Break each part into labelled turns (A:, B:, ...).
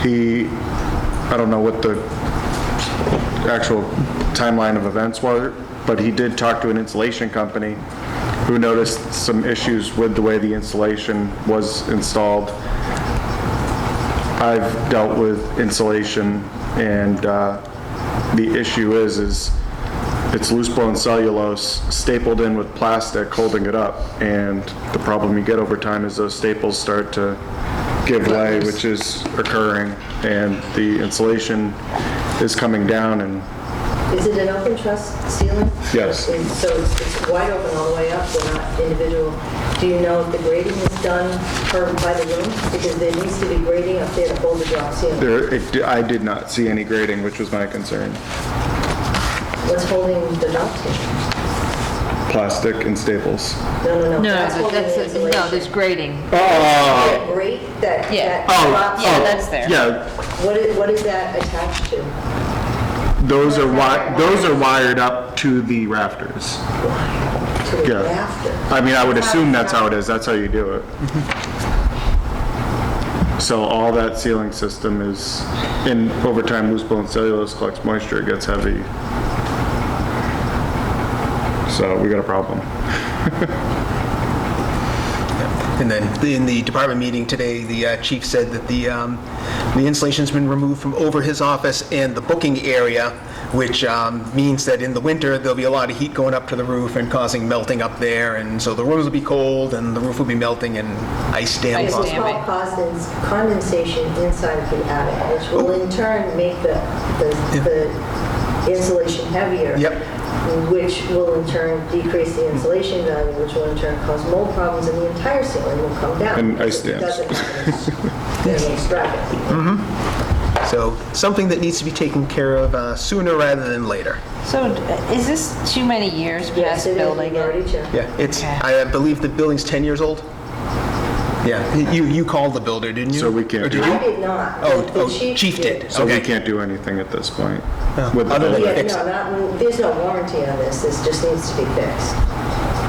A: He, I don't know what the actual timeline of events were, but he did talk to an insulation company who noticed some issues with the way the insulation was installed. I've dealt with insulation, and uh, the issue is, is it's loose-blown cellulose stapled in with plastic holding it up, and the problem you get over time is those staples start to give way, which is occurring, and the insulation is coming down, and
B: Is it an open truss ceiling?
A: Yes.
B: And So it's it's wide open all the way up, they're not individual. Do you know if the grading is done per, by the room? Because there needs to be grading up there to hold the drop ceiling.
A: there, it di- I did not see any grading, which was my concern.
B: What's holding the drop ceiling?
A: Plastic and staples.
B: No, no, no.
C: No,
B: that's holding the
C: that's, no, there's
B: insulation.
C: grading.
B: That grate, that, that
C: Yeah.
A: Oh.
B: drop
C: Yeah,
B: ceiling,
C: that's there.
A: Yeah,
B: what is, what is that attached to?
A: Those are wi, those are wired up to the rafters.
B: To the
A: Yeah.
B: rafter?
A: I mean, I would assume that's how it is, that's how you do it. So all that ceiling system is, and over time, loose bone cellulose collects moisture, it gets heavy. So we got a problem.
D: And then in the department meeting today, the uh, chief said that the, um, the insulation's been removed from over his office and the booking area, which um, means that in the winter, there'll be a lot of heat going up to the roof and causing melting up there, and so the rooms will be cold, and the roof will be melting, and ice dam
C: Ice
B: It will
C: dam.
D: possible.
C: Damping.
B: cause cons- condensation inside of the attic, which will in turn make the, the- the insulation heavier.
D: Yep.
B: Which will in turn decrease the insulation value, which will in turn cause mold problems, and the entire ceiling will come down.
A: And ice
B: It
A: dams.
B: Doesn't happen in in these brackets.
D: So something that needs to be taken care of uh, sooner rather than later.
C: So d- is this too many years
B: Yes,
C: past
B: it is,
C: building
B: we've already
C: it?
B: checked.
D: Yeah, it's,
C: Okay.
D: I uh, believe the building's 10 years old? Yeah, you, you called the builder, didn't you?
A: So we can't
D: Or did
A: do-
D: you?
B: I did not.
D: Oh,
B: The
D: oh, chief did.
A: So we
D: Okay.
A: can't do anything at this point. with the
D: Other than-
B: Yeah,
A: building.
D: Fix
B: no,
D: it.
B: not, there's no warranty on this, this just needs to be fixed.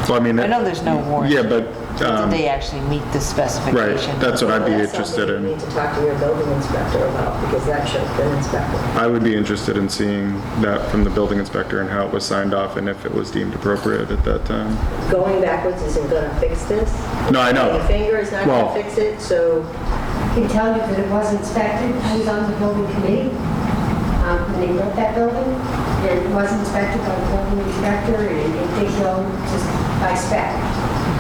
A: So I mean.
C: I know there's no warranty.
A: Yeah, but,
C: Did
A: um,
C: they actually meet the
A: right,
C: specification?
A: that's what I'd be
B: That's
A: interested
B: something You
A: in.
B: need to talk to your building inspector about, because that should have been inspected.
A: I would be interested in seeing that from the building inspector and how it was signed off and if it was deemed appropriate at that time.
B: going backwards isn't gonna fix this.
A: No, I know.
B: Your finger is not
A: Well-
B: gonna fix it, so
E: can tell you that it was inspected. I was on the building committee um, when they built that building. And it was inspected by the building inspector and it did go just by spec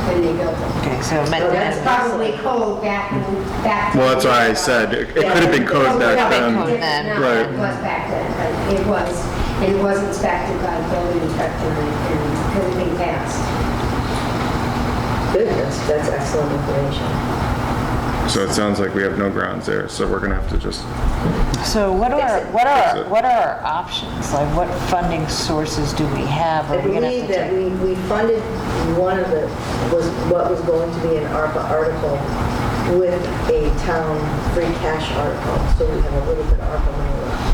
E: when they built it.
C: Okay, so it
B: Oh, that's
C: meant
E: That's
C: that.
E: probably code back, in- back.
A: Well, that's why I said, it could have been code back then.
C: code then.
A: Right.
E: It was back then, but it was, it was inspected by the building inspector and and could have been passed.
B: good, that's, that's excellent information.
A: So it sounds like we have no grounds there, so we're gonna have to just,
C: So what are, what
A: Fix
C: are,
A: it.
C: what are our options? Like what funding sources do we have?
B: I
C: Are we gonna
B: believe
C: have to
B: that
C: take?
B: we, we funded one of the, was what was going to be an ARPA article with a town free cash article, so we have a little bit of ARPA money left.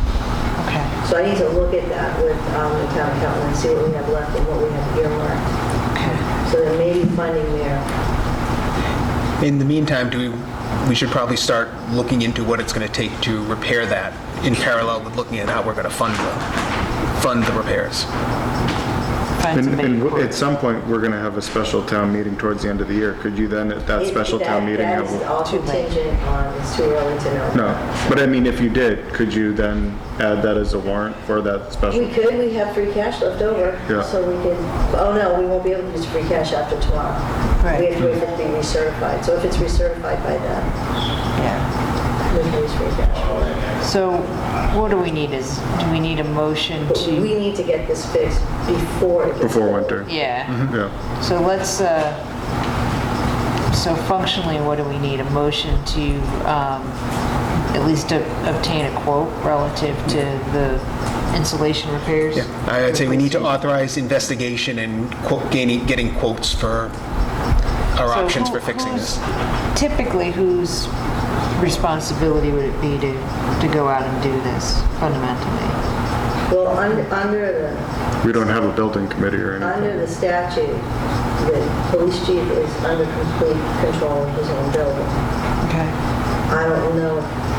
C: Okay,
B: So I need to look at that with um, the town accountant and see what we have left and what we have earmarked.
C: okay.
B: So there may be funding there.
D: In the meantime, do we, we should probably start looking into what it's going to take to repair that in parallel with looking at how we're going to fund the, fund the repairs.
C: Find
A: and,
C: somebody.
A: and
C: who-
A: at some point, we're gonna have a special town meeting towards the end of the year. Could you then, at that
B: It-
A: special
B: that-
A: town meeting, have,
B: That is
A: a-
B: all
C: Too late.
B: contingent on, it's too early to know.
A: no, but I mean, if you did, could you then add that as a warrant for that
B: We
A: special?
B: could, we have free cash left over,
A: Yeah.
B: so we could, oh no, we won't be able to use free cash after tomorrow. We
C: Right.
B: have to wait for it to be recertified, so if it's recertified by then,
C: Yeah.
B: we can use free cash.
C: So what do we need is, do we need a motion
B: But
C: to?
B: we need to get this fixed before it gets.
A: Before winter?
C: Yeah,
A: Yeah,
C: so let's, uh, so functionally, what do we need? A motion to um, at least ob- obtain a quote relative to the insulation repairs?
D: I'd say we need to authorize investigation and quote, gaining, getting quotes for our
C: So
D: options
C: who-
D: for fixing
C: who's-
D: this.
C: Typically, whose responsibility would it be to, to go out and do this fundamentally?
B: Well, un- under the,
A: we don't have a building committee or
B: Under
A: anything.
B: the statute, the police chief is under complete control of his own building.
C: Okay.
B: I don't know if